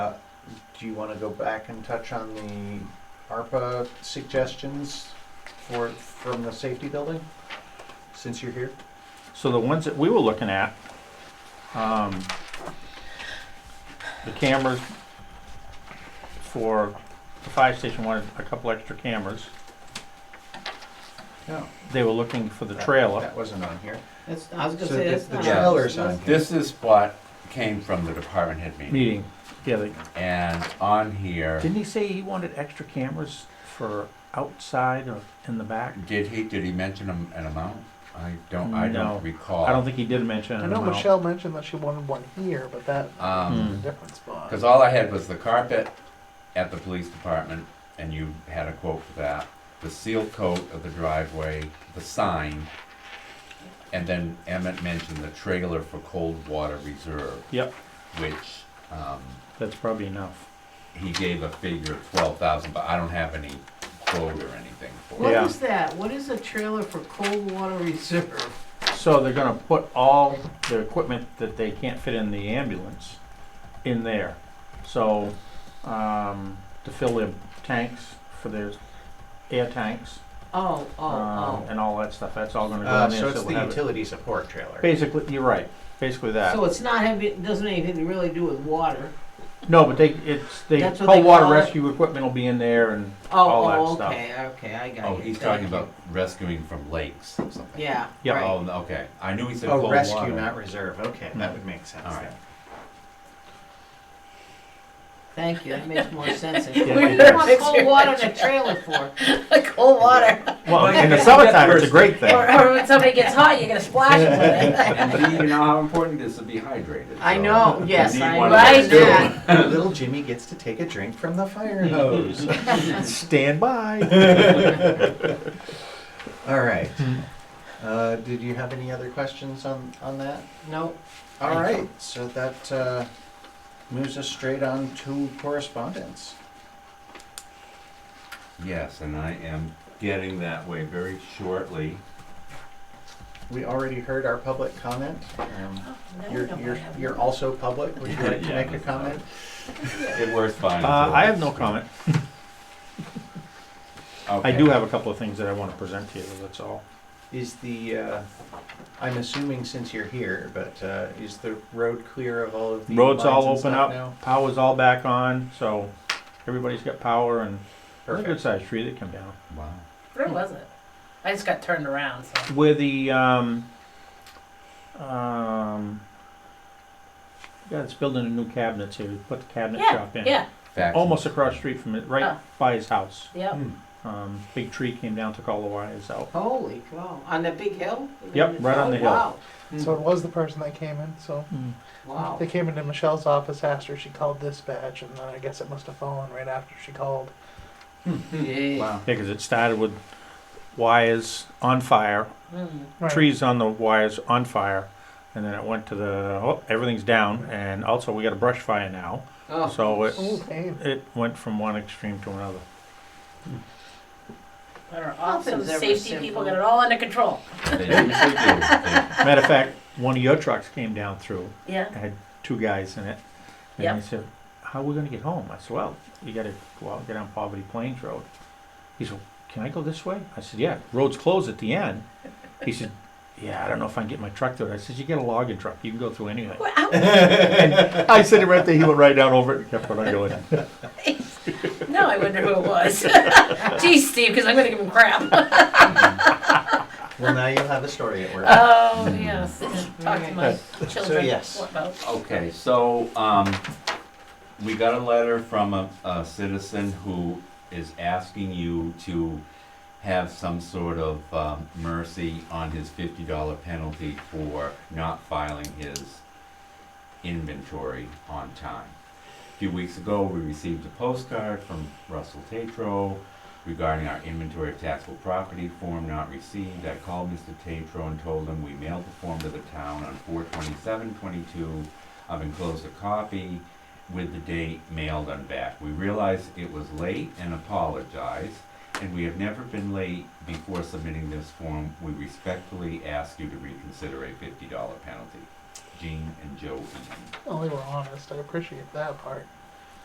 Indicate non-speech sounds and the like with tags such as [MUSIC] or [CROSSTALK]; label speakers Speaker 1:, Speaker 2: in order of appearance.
Speaker 1: do you want to go back and touch on the ARPA suggestions for, from the safety building? Since you're here?
Speaker 2: So the ones that we were looking at, um, the cameras for the fire station wanted a couple extra cameras.
Speaker 1: No.
Speaker 2: They were looking for the trailer.
Speaker 1: That wasn't on here.
Speaker 3: It's, I was gonna
Speaker 1: So
Speaker 3: say,
Speaker 1: the-
Speaker 3: it's
Speaker 1: the
Speaker 3: not.
Speaker 1: trailer's on here.
Speaker 4: This is what came from the department head meeting,
Speaker 2: Meeting, yeah, they,
Speaker 4: and on here,
Speaker 2: didn't he say he wanted extra cameras for outside or in the back?
Speaker 4: did he, did he mention am- an amount? I don't, I
Speaker 2: No.
Speaker 4: don't recall.
Speaker 2: I don't think he did mention
Speaker 5: I
Speaker 2: an
Speaker 5: know
Speaker 2: amount.
Speaker 5: Michelle mentioned that she wanted one here, but that
Speaker 4: Um,
Speaker 2: Hmm.
Speaker 5: a different spot.
Speaker 4: Because all I had was the carpet at the police department, and you had a quote for that, the seal coat of the driveway, the sign, and then Emmett mentioned the trailer for cold water reserve,
Speaker 2: Yep,
Speaker 4: which um,
Speaker 2: that's probably enough.
Speaker 4: he gave a figure of twelve thousand, but I don't have any quote or anything for
Speaker 3: What
Speaker 4: it.
Speaker 2: Yeah.
Speaker 3: is that? What is a trailer for cold water reserve?
Speaker 2: So they're gonna put all the equipment that they can't fit in the ambulance in there. So, um, to fill their tanks for their air tanks,
Speaker 3: Oh, oh,
Speaker 2: um,
Speaker 3: oh.
Speaker 2: and all that stuff, that's all gonna go
Speaker 1: Uh,
Speaker 2: in
Speaker 1: so
Speaker 2: there,
Speaker 1: it's
Speaker 2: so
Speaker 1: the
Speaker 2: we'll have it.
Speaker 1: utility support trailer.
Speaker 2: Basically, you're right, basically that.
Speaker 3: So it's not having, it doesn't have anything to really do with water.
Speaker 2: No, but they, it's, the
Speaker 3: That's what
Speaker 2: cold
Speaker 3: they
Speaker 2: water
Speaker 3: call it?
Speaker 2: rescue equipment will be in there and all that
Speaker 3: Oh, oh,
Speaker 2: stuff.
Speaker 3: okay, okay, I got it.
Speaker 4: Oh, he's talking about rescuing from lakes or something.
Speaker 3: Yeah,
Speaker 2: Yeah.
Speaker 3: right.
Speaker 4: Oh, okay, I knew he said cold
Speaker 1: Oh,
Speaker 4: water.
Speaker 1: rescue, not reserve. Okay, that would make sense
Speaker 4: All right.
Speaker 1: then.
Speaker 3: Thank you, that
Speaker 2: [LAUGHS]
Speaker 3: makes more sense. than-
Speaker 2: Yeah,
Speaker 3: What do
Speaker 2: it
Speaker 3: you
Speaker 2: does.
Speaker 3: want cold water in a trailer for?
Speaker 6: cold water.
Speaker 2: Well, in the summertime, it's a great thing.
Speaker 6: [LAUGHS] Or, or when somebody gets hot, you're gonna splash them
Speaker 1: [LAUGHS]
Speaker 4: [LAUGHS]
Speaker 6: with it.
Speaker 4: And do you know how important it is to be hydrated?
Speaker 3: I
Speaker 4: so
Speaker 3: know,
Speaker 4: you
Speaker 3: yes,
Speaker 4: need
Speaker 3: I
Speaker 4: one of those
Speaker 3: right
Speaker 4: too.
Speaker 1: [LAUGHS]
Speaker 3: now.
Speaker 1: Little Jimmy gets to take a drink from the
Speaker 2: [LAUGHS]
Speaker 1: fire hose.
Speaker 2: Stand by.
Speaker 1: All right. Uh, did you have any other questions on, on that?
Speaker 3: Nope.
Speaker 1: All
Speaker 3: Thank
Speaker 1: right, so that uh, moves us straight on to correspondence.
Speaker 4: Yes, and I am getting that way very shortly.
Speaker 1: We already heard our public comment. Um, You're, you're, you're also public. Would you like to
Speaker 4: Yeah,
Speaker 1: make a
Speaker 4: that's
Speaker 1: comment?
Speaker 4: It works fine.
Speaker 2: Uh,
Speaker 4: until
Speaker 2: I have
Speaker 4: it's-
Speaker 2: no comment. I
Speaker 4: Okay.
Speaker 2: do have a couple of things that I wanna present to you, that's all.
Speaker 1: Is the, uh, I'm assuming since you're here, but uh, is the road clear of all of the
Speaker 2: Roads all
Speaker 1: lines and
Speaker 2: open
Speaker 1: stuff
Speaker 2: up, power's all back on, so everybody's got power and there's a
Speaker 1: Perfect.
Speaker 2: good sized tree that come down.
Speaker 4: Wow.
Speaker 6: Where was it? I just got turned around, so.
Speaker 2: Where the, um, um, yeah, it's building a new cabinets here, we put the cabinet
Speaker 6: Yeah,
Speaker 2: shop in.
Speaker 6: yeah,
Speaker 4: Fact-
Speaker 2: Almost across the street from it, right
Speaker 6: Oh.
Speaker 2: by his house.
Speaker 6: yeah.
Speaker 1: Hmm.
Speaker 2: Um, big tree came down, took all the wires out.
Speaker 3: Holy cow, on the big hill?
Speaker 2: Yep, right on the hill.
Speaker 3: Oh, Wow,
Speaker 1: Mm.
Speaker 5: so it was the person that came in. So
Speaker 3: wow.
Speaker 5: they came into Michelle's office, asked her, she called dispatch, and then I guess it must have fallen right after she called.
Speaker 3: Yeah.
Speaker 1: Wow.
Speaker 2: Yeah, 'cause it started with wires on fire,
Speaker 1: Hmm.
Speaker 6: Mm.
Speaker 5: Right.
Speaker 2: trees on the wires on fire, and then it went to the, oh, everything's down, and also we got a brush fire now.
Speaker 3: Oh.
Speaker 2: So it,
Speaker 5: Ooh, pain.
Speaker 2: It went from one extreme to another.
Speaker 6: They're awesome.
Speaker 3: Nothing's ever
Speaker 6: Safety
Speaker 3: simple.
Speaker 6: people got it all under control.
Speaker 2: [LAUGHS]
Speaker 4: They usually do.
Speaker 2: Matter of fact, one of your trucks came down through,
Speaker 6: Yeah.
Speaker 2: had two guys in it. And
Speaker 6: Yep.
Speaker 2: he said, How are we going to get home? I said, Well, you got to go out and get on Poverty Plains Road. He said, Can I go this way? I said, Yeah, road's closed at the end. He said, Yeah, I don't know if I can get my truck through it. I said, You get a logging truck, you can go through anyway.
Speaker 6: Well,
Speaker 2: [LAUGHS]
Speaker 6: I-
Speaker 2: I said it right there, he went right down over it and kept on going.
Speaker 6: No, I wonder who it was. Geez, Steve, because I'm going to give him crap.
Speaker 1: Well, now you'll have a story at work.
Speaker 6: Oh, [LAUGHS] yes. Talk to my children.
Speaker 1: yes.
Speaker 6: What about?
Speaker 4: Okay, so, um, we got a letter from a, a citizen who is asking you to have some sort of, um, mercy on his fifty dollar penalty for not filing his inventory on time. A few weeks ago, we received a postcard from Russell Tatro regarding our inventory of taxable property form not received. I called Mr. Tatro and told him we mailed the form to the town on four twenty-seven twenty-two. I've enclosed a copy with the date mailed on back. We realized it was late and apologized, and we have never been late before submitting this form. We respectfully ask you to reconsider a fifty dollar penalty. Gene and Joe Eaton.
Speaker 5: Well, they were honest. I appreciate that part.